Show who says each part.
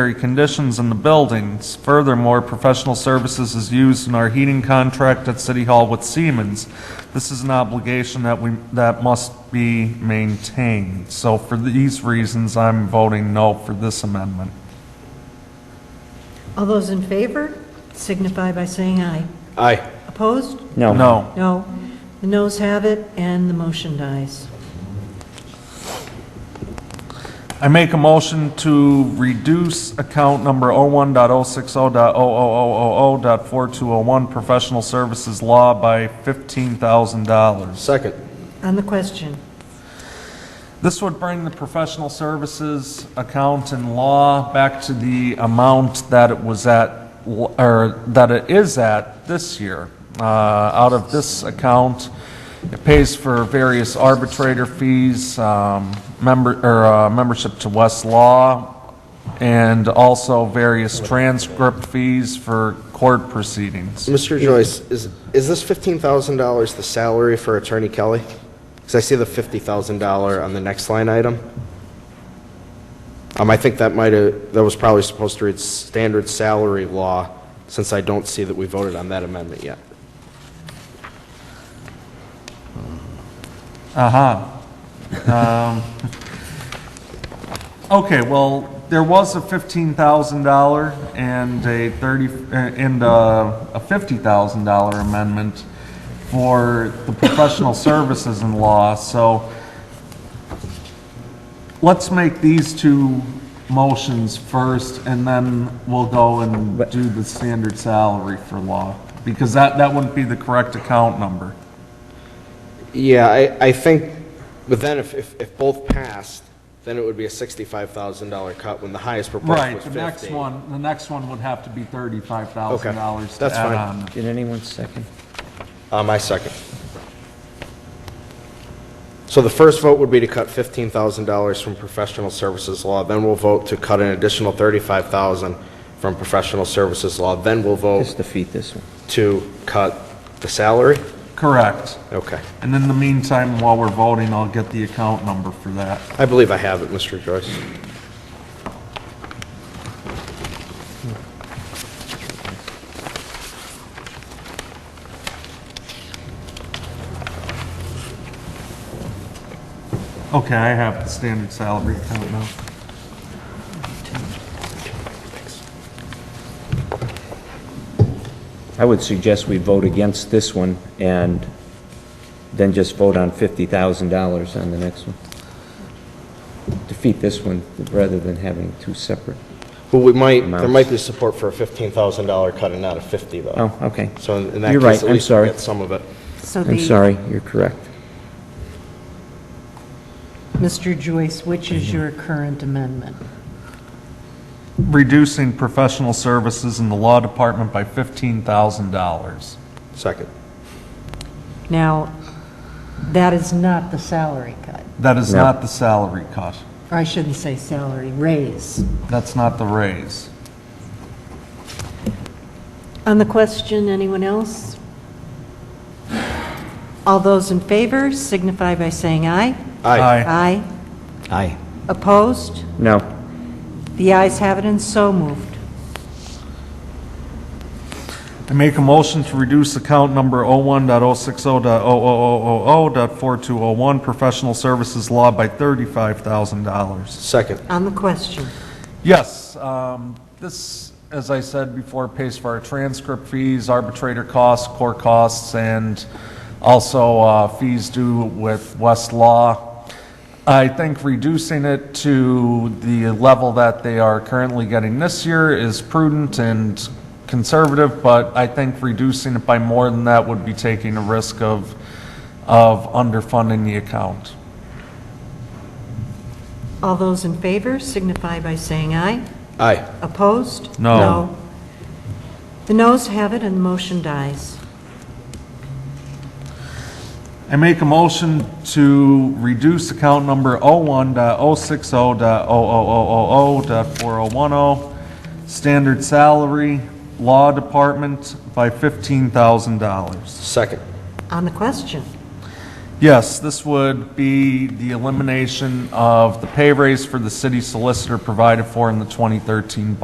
Speaker 1: sanitary conditions in the buildings. Furthermore, professional services is used in our heating contract at City Hall with Siemens. This is an obligation that we, that must be maintained. So for these reasons, I'm voting no for this amendment.
Speaker 2: All those in favor signify by saying aye.
Speaker 3: Aye.
Speaker 2: Opposed?
Speaker 4: No.
Speaker 1: No.
Speaker 2: No. The noes have it, and the motion dies.
Speaker 1: I make a motion to reduce account number 01.060.00000.4201 professional services law by $15,000.
Speaker 3: Second.
Speaker 2: On the question,
Speaker 1: This would bring the professional services account in law back to the amount that it was at, or that it is at this year. Uh, Out of this account, it pays for various arbitrator fees, um, member, or uh, membership to West Law, and also various transcript fees for court proceedings.
Speaker 3: Mr. Joyce, is, is this $15,000 the salary for Attorney Kelly? Because I see the $50,000 on the next line item. Um, I think that might have, that was probably supposed to read standard salary law, since I don't see that we voted on that amendment yet.
Speaker 1: Aha. Um, Okay, well, there was a $15,000 and a 30, uh, and uh, a $50,000 amendment for the professional services in law, so let's make these two motions first, and then we'll go and do the standard salary for law, because that, that wouldn't be the correct account number.
Speaker 3: Yeah, I, I think, but then if, if, if both passed, then it would be a $65,000 cut, when the highest proposal
Speaker 1: Right,
Speaker 3: was
Speaker 1: the
Speaker 3: 50.
Speaker 1: next one, the next one would have to be thirty-five thousand dollars
Speaker 3: Okay,
Speaker 1: to
Speaker 3: that's
Speaker 1: add
Speaker 3: fine.
Speaker 1: on.
Speaker 4: Did anyone second?
Speaker 3: Uh, my second. So the first vote would be to cut $15,000 from professional services law, then we'll vote to cut an additional $35,000 from professional services law, then we'll
Speaker 4: Just
Speaker 3: vote
Speaker 4: defeat this one.
Speaker 3: to cut the salary?
Speaker 1: Correct.
Speaker 3: Okay.
Speaker 1: And in the meantime, while we're voting, I'll get the account number for that.
Speaker 3: I believe I have it, Mr. Joyce.
Speaker 1: Okay, I have the standard salary account now.
Speaker 4: I would suggest we vote against this one and then just vote on $50,000 on the next one. Defeat this one rather than having two separate.
Speaker 3: Well, we might, there
Speaker 4: Amounts.
Speaker 3: might be support for a $15,000 cut and not a 50, though.
Speaker 4: Oh, okay.
Speaker 3: So in in that
Speaker 4: You're
Speaker 3: case, at
Speaker 4: right, I'm
Speaker 3: least we
Speaker 4: sorry.
Speaker 3: get some of it.
Speaker 2: so
Speaker 4: I'm
Speaker 2: the,
Speaker 4: sorry, you're correct.
Speaker 2: Mr. Joyce, which is your current amendment?
Speaker 1: Reducing professional services in the law department by fifteen thousand dollars.
Speaker 3: Second.
Speaker 2: Now, that is not the salary cut,
Speaker 1: That is
Speaker 4: No.
Speaker 1: not the salary cut.
Speaker 2: or I shouldn't say salary, raise.
Speaker 1: That's not the raise.
Speaker 2: On the question, anyone else? All those in favor signify by saying aye.
Speaker 3: Aye.
Speaker 2: Aye.
Speaker 4: Aye.
Speaker 2: Opposed?
Speaker 4: No.
Speaker 2: The ayes have it and so moved.
Speaker 1: I make a motion to reduce account number oh-one.oh-six-oh.oh-oh-oh-oh.4201, professional services law by thirty-five thousand dollars.
Speaker 3: Second.
Speaker 2: On the question,
Speaker 1: Yes, um, this, as I said before, pays for our transcript fees, arbitrator costs, court costs, and also uh, fees due with Westlaw. I think reducing it to the level that they are currently getting this year is prudent and conservative, but I think reducing it by more than that would be taking a risk of, of underfunding the account.
Speaker 2: all those in favor signify by saying aye.
Speaker 3: Aye.
Speaker 2: Opposed?
Speaker 1: No.
Speaker 2: The noes have it and the motion dies.
Speaker 1: I make a motion to reduce account number oh-one.oh-six-oh.oh-oh-oh-oh.4010, standard salary, law department, by $15,000.
Speaker 3: Second.
Speaker 2: On the question,
Speaker 1: Yes, this would be the elimination of the pay raise for the city solicitor provided for in the 2013